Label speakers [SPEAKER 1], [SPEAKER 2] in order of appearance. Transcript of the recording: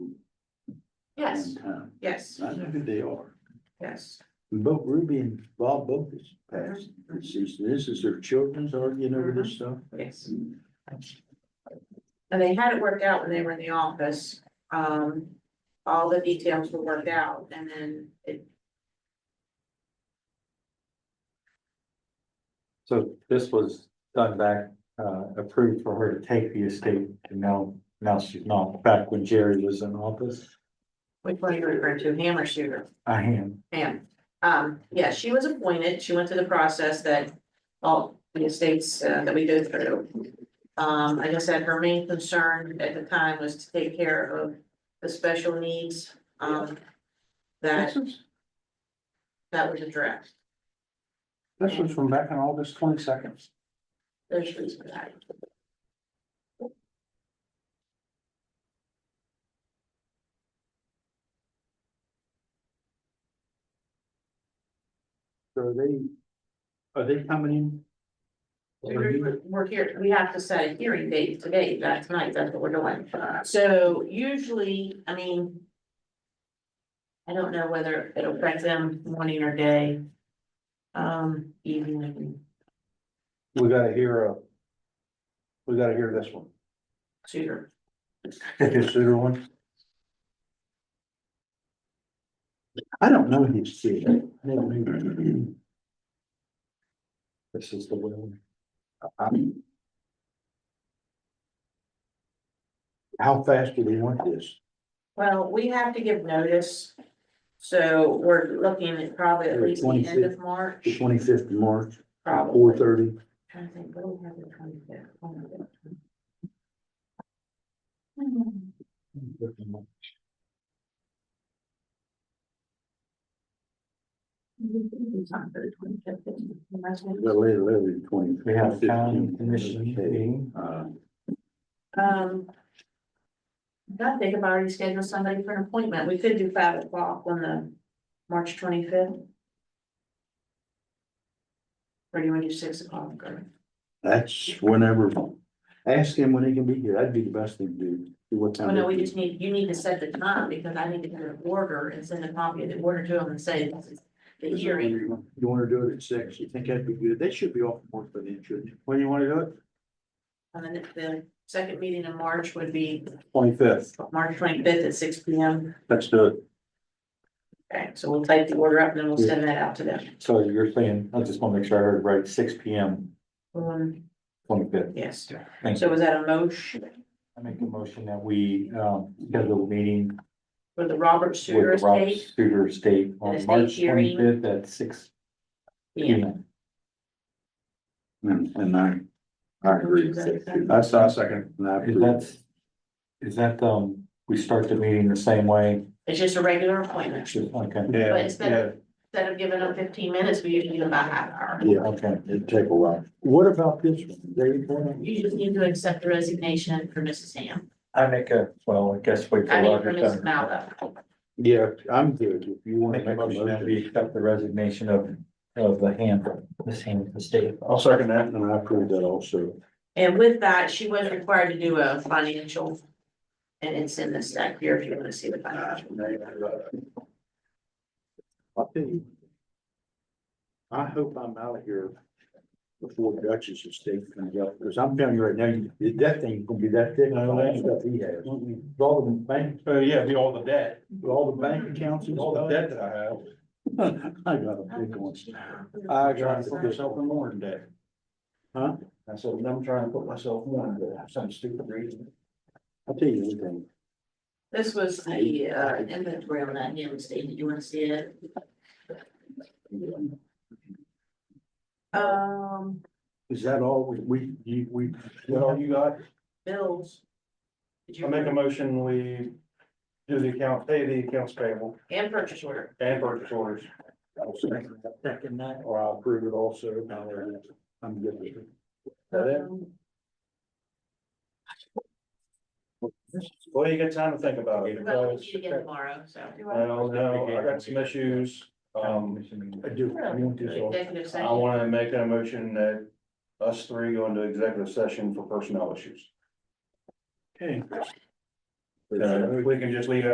[SPEAKER 1] Yes,
[SPEAKER 2] in town.
[SPEAKER 1] yes,
[SPEAKER 2] uh, I know who they are.
[SPEAKER 1] yes.
[SPEAKER 2] And Both Ruby and Bob both is passed. It's just- This is their children's arguing over this stuff.
[SPEAKER 1] Yes. And they had it worked out when they were in the office, um, all the details were worked out and then it,
[SPEAKER 3] So this was done back, uh, approved for her to take the estate and now, now she's not, back when Jerry was in office.
[SPEAKER 1] which one are you referring to, ham or shooter?
[SPEAKER 3] I am,
[SPEAKER 1] Ham. Um, yeah, she was appointed, she went through the process that all the estates uh, that we go through. Um, I just said her main concern at the time was to take care of the special needs, um, that,
[SPEAKER 2] This is-
[SPEAKER 1] that was addressed.
[SPEAKER 2] This was from back on August twenty second.
[SPEAKER 1] There's reason for that.
[SPEAKER 2] So are they, are they coming in?
[SPEAKER 1] We're we're here, we have to set a hearing date today, that's tonight, that's what we're doing. So usually, I mean. I don't know whether it'll affect them morning or day. Um, evening,
[SPEAKER 2] We gotta hear
[SPEAKER 3] uh,
[SPEAKER 2] a. We gotta hear this one.
[SPEAKER 1] shooter.
[SPEAKER 2] This other one. I don't know his kid. I never knew.
[SPEAKER 3] this is the will.
[SPEAKER 2] I'm- How fast do they want this?
[SPEAKER 1] Well, we have to give notice. So we're looking at probably at least the end of March,
[SPEAKER 2] The twenty fifth of March, four
[SPEAKER 1] probably.
[SPEAKER 2] thirty?
[SPEAKER 1] Trying to think, what do we have the 25th? Oh, my God. It's not for the 25th, it's the last one.
[SPEAKER 2] The late eleven twenty.
[SPEAKER 3] We have a town commission meeting,
[SPEAKER 2] Uh,
[SPEAKER 1] Um. I think I've already scheduled somebody for an appointment. We could do five o'clock on the March twenty fifth. Or do you want to do six o'clock? or-
[SPEAKER 2] that's whenever, ask him when he can be here, that'd be the best thing to do, see what
[SPEAKER 1] Oh,
[SPEAKER 2] time.
[SPEAKER 1] no, we
[SPEAKER 2] they-
[SPEAKER 1] just need, you need to set the time because I need to get an order and send a copy of the order to them and say this is the hearing.
[SPEAKER 2] You wanna do it at six, you think that'd be good, that should be off work for the shouldn't it? When you wanna do it?
[SPEAKER 1] And then the second meeting in March would be
[SPEAKER 2] Twenty fifth,
[SPEAKER 1] March twenty fifth at six P M.
[SPEAKER 2] let's do it.
[SPEAKER 1] Okay, so we'll type the order up and then we'll send that out to them.
[SPEAKER 3] so you're saying, I just wanna make sure I heard right, six P M,
[SPEAKER 1] Um,
[SPEAKER 3] twenty fifth.
[SPEAKER 1] yes,
[SPEAKER 3] Thank
[SPEAKER 1] so
[SPEAKER 3] you.
[SPEAKER 1] was that a motion
[SPEAKER 3] I make a motion that we, um, schedule a meeting
[SPEAKER 1] for the Robert Suter
[SPEAKER 3] with the Rob
[SPEAKER 1] estate?
[SPEAKER 3] Studer State
[SPEAKER 1] An
[SPEAKER 3] on
[SPEAKER 1] estate
[SPEAKER 3] March
[SPEAKER 1] hearing.
[SPEAKER 3] twenty fifth at six P
[SPEAKER 1] Yeah,
[SPEAKER 3] M.
[SPEAKER 2] And, and I, I agree. That's our second. and I
[SPEAKER 3] Is
[SPEAKER 2] approve.
[SPEAKER 3] that, is that, um, we start the meeting the same way?
[SPEAKER 1] it's just a regular appointment.
[SPEAKER 3] Okay,
[SPEAKER 2] Yeah,
[SPEAKER 1] But it's been-
[SPEAKER 2] yeah,
[SPEAKER 1] Instead of giving them fifteen minutes, we usually give them about half an hour.
[SPEAKER 2] yeah,
[SPEAKER 3] okay.
[SPEAKER 2] it'd take a while. What about this one? They want
[SPEAKER 1] You just need to accept the resignation for Mrs. Ham.
[SPEAKER 3] I make a, well, I guess wait
[SPEAKER 1] I
[SPEAKER 3] for
[SPEAKER 1] mean, for
[SPEAKER 3] Roger.
[SPEAKER 1] Mrs.
[SPEAKER 3] to
[SPEAKER 1] Malva.
[SPEAKER 2] Yeah, I'm good, if you wanna
[SPEAKER 3] Make a motion that
[SPEAKER 2] that.
[SPEAKER 3] we accept the resignation of, of the hand, this hand of the state.
[SPEAKER 2] I'll second that, and I approve that also.
[SPEAKER 1] And with that, she was required to do a financial. And it's in the stack here if you want to see the financial.
[SPEAKER 2] I'll tell you. I hope I'm out of here before Dutchess estate comes up, because I'm telling you right now, you- that thing's gonna be that thick, all that stuff he has. With All the bank,
[SPEAKER 4] Mm-hmm. Uh, yeah, the, all the debt,
[SPEAKER 2] with all the bank accounts and
[SPEAKER 4] all
[SPEAKER 2] all
[SPEAKER 4] the
[SPEAKER 2] that.
[SPEAKER 4] debt that I have.
[SPEAKER 2] I got a big one. I
[SPEAKER 4] I'm trying
[SPEAKER 2] got
[SPEAKER 4] to put myself in more in debt.
[SPEAKER 2] Huh?
[SPEAKER 4] I said, I'm trying to put myself more in debt, for some stupid reason.
[SPEAKER 2] I'll tell you anything.
[SPEAKER 1] This was the uh inventory on that ham estate. Did you want to see it? Um,
[SPEAKER 2] Is that all we, we, you, we?
[SPEAKER 4] What all you got?
[SPEAKER 1] bills. Did you-
[SPEAKER 4] I make a motion, we do the account, pay the accounts payable
[SPEAKER 1] And purchase order.
[SPEAKER 4] and purchase orders.
[SPEAKER 2] I'll second that. Second that, or I'll approve it also. Now, there it is. I'm good. with it. That it?
[SPEAKER 1] Um,
[SPEAKER 4] Well, you got time to think about it.
[SPEAKER 1] Well, we
[SPEAKER 4] because-
[SPEAKER 1] need to get tomorrow, so.
[SPEAKER 4] I don't know, I got some issues, um,
[SPEAKER 2] I do.
[SPEAKER 3] uh,
[SPEAKER 2] I want this all.
[SPEAKER 1] Executive
[SPEAKER 4] I
[SPEAKER 1] session,
[SPEAKER 4] wanna make a motion that us three go into executive session for personnel issues.
[SPEAKER 2] Okay.
[SPEAKER 4] So if we can just leave